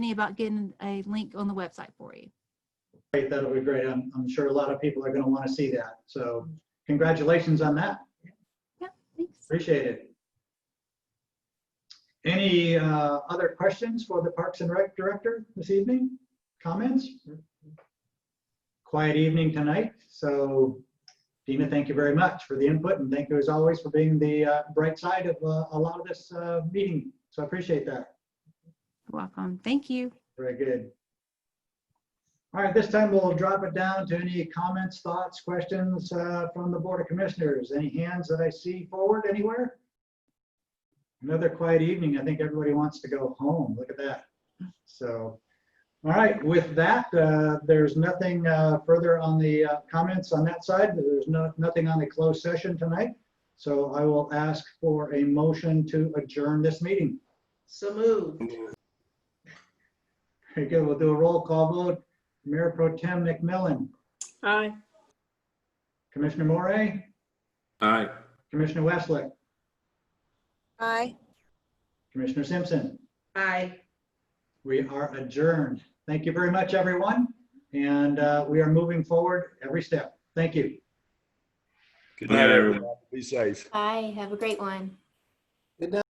me about getting a link on the website for you. Great, that'll be great. I'm, I'm sure a lot of people are going to want to see that. So congratulations on that. Thanks. Appreciate it. Any uh, other questions for the Parks and Rec Director this evening? Comments? Quiet evening tonight, so Dina, thank you very much for the input and thank you as always for being the uh, bright side of uh, a lot of this uh, meeting. So I appreciate that. You're Welcome. Thank you. Very good. All right, this time we'll drop it down to any comments, thoughts, questions uh, from the Board of Commissioners. Any hands that I see forward anywhere? Another quiet evening. I think everybody wants to go home. Look at that. So, all right, with that, uh, there's nothing uh, further on the uh, comments on that side. There's no, nothing on the closed session tonight. So I will ask for a motion to adjourn this meeting. So moved. Very good. We'll do a roll call vote. Mayor Pro Tem McMillan, Aye. Commissioner Morey, Aye. Commissioner Westlake, Aye. Commissioner Simpson. Aye. We are adjourned. Thank you very much, everyone. And uh, we are moving forward every step. Thank you. Good night, everyone. Be safe. Bye. Have a great one.